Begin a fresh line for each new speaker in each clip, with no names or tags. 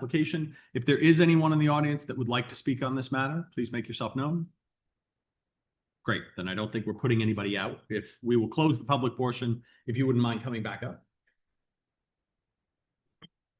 application. If there is anyone in the audience that would like to speak on this matter, please make yourself known. Great, then I don't think we're putting anybody out. If, we will close the public portion, if you wouldn't mind coming back up.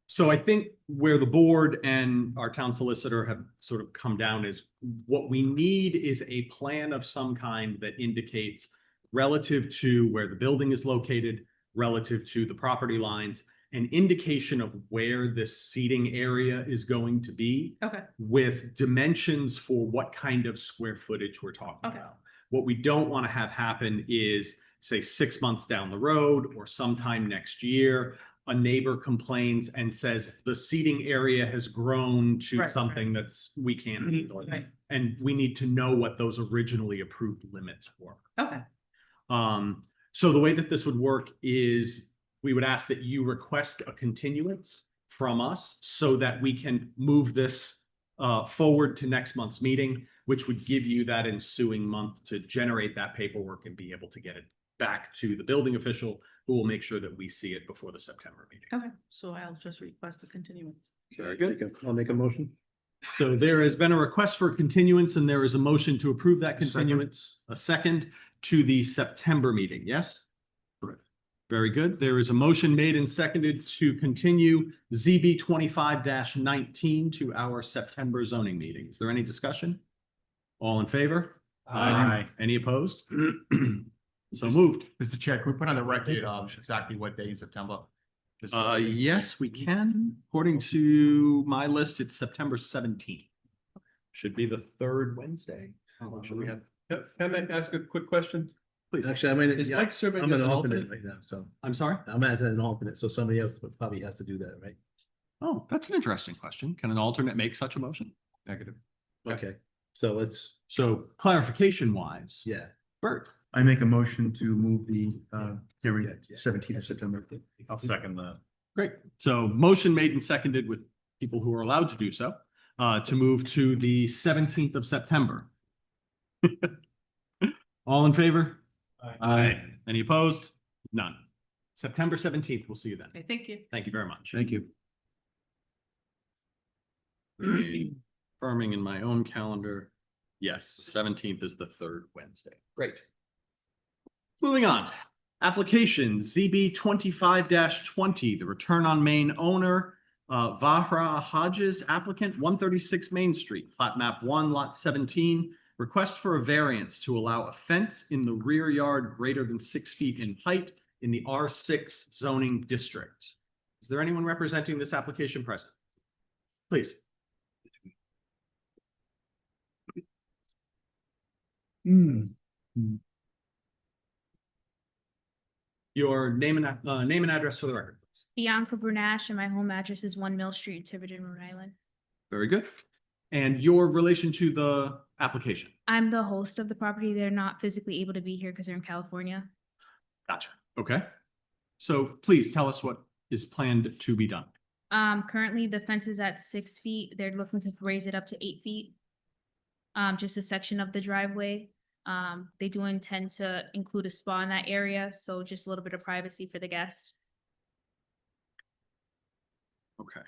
So I think where the board and our town solicitor have sort of come down is what we need is a plan of some kind that indicates relative to where the building is located, relative to the property lines, an indication of where this seating area is going to be
Okay,
with dimensions for what kind of square footage we're talking
Okay.
about. What we don't want to have happen is, say, six months down the road or sometime next year, a neighbor complains and says, the seating area has grown
Right,
to
right.
something that's, we can't handle it.
Mm-hmm. Right.
And we need to know what those originally approved limits were.
okay,
Um, so the way that this would work is we would ask that you request a continuance from us so that we can move this uh, forward to next month's meeting, which would give you that ensuing month to generate that paperwork and be able to get it back to the building official who will make sure that we see it before the September meeting.
okay, so I'll just request a continuance.
Very good.
I'll make a motion.
So there has been a request for continuance and there is a motion to approve that
Second.
continuance, a second to the September meeting, yes?
Correct.
Very good. There is a motion made and seconded to continue ZB twenty-five nineteen to our September zoning meeting. Is there any discussion? All in favor?
Aye.
Any opposed? So moved.
Mr. Chair, can we put on the record um, exactly what day in September? Just-
Uh, yes, we can. According to my list, it's September seventeenth. Should be the third Wednesday. Should we have
Can can I ask a quick question?
Please.
Actually, I mean,
Is
yeah,
Mike serving
I'm
as
an
an
alternate
alternate?
right now, so
I'm sorry?
I'm as an alternate, so somebody else would probably has to do that, right?
Oh, that's an interesting question. Can an alternate make such a motion? Negative.
Okay, so let's,
So clarification wise.
yeah.
Bert,
I make a motion to move the uh hearing
Yeah, yeah.
seventeenth of September.
I'll second the.
great. So motion made and seconded with people who are allowed to do so, uh, to move to the seventeenth of September. All in favor?
Aye.
Any opposed? None. September seventeenth, we'll see you then.
Okay, thank you.
Thank you very much.
Thank you.
Confirming in my own calendar, yes, seventeenth is the third Wednesday. Great. Moving on, application ZB twenty-five twenty, the return on main owner, uh, Vahra Hodges applicant, one thirty-six Main Street, plat map one, lot seventeen. Request for a variance to allow a fence in the rear yard greater than six feet in height in the R six zoning district. Is there anyone representing this application present? Please. Your name and, uh, name and address for the record, please.
Bianca Brunash and my home address is One Mill Street, Tiverton, Rhode Island.
Very good. And your relation to the application.
I'm the host of the property. They're not physically able to be here because they're in California.
Gotcha. Okay. So please tell us what is planned to be done.
Um, currently the fence is at six feet. They're looking to raise it up to eight feet. Um, just a section of the driveway. Um, they do intend to include a spa in that area, so just a little bit of privacy for the guests.
Okay.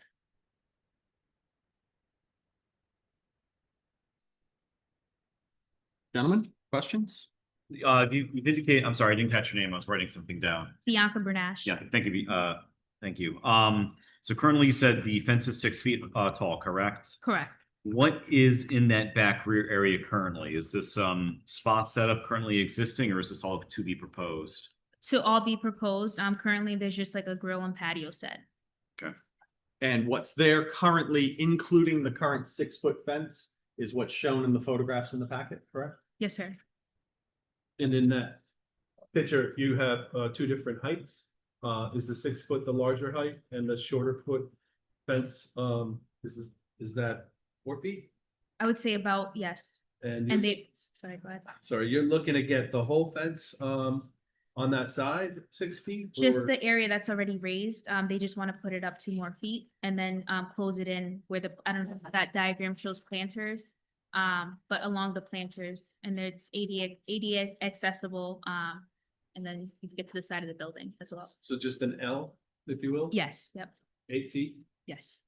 Gentlemen, questions?
Uh, if you indicate, I'm sorry, I didn't catch your name. I was writing something down.
Bianca Brunash.
Yeah, thank you. Uh, thank you. Um, so currently you said the fence is six feet uh tall, correct?
Correct.
What is in that back rear area currently? Is this um spot setup currently existing or is this all to be proposed?
To all be proposed, um, currently there's just like a grill and patio set.
And what's there currently, including the current six-foot fence, is what's shown in the photographs in the packet, correct?
Yes, sir.
And in that picture, you have uh two different heights. Uh, is the six foot the larger height and the shorter foot fence, um, is is that four feet?
I would say about, yes.
And
And
you-
they, sorry, go ahead.
sorry, you're looking to get the whole fence um on that side, six feet?
Just
or-
the area that's already raised, um, they just want to put it up two more feet and then, um, close it in where the, I don't know if that diagram shows planters. Um, but along the planters and it's ADA, ADA accessible, um, and then you can get to the side of the building as well.
So just an L, if you will?
Yes, yep,
Eight feet?
yes.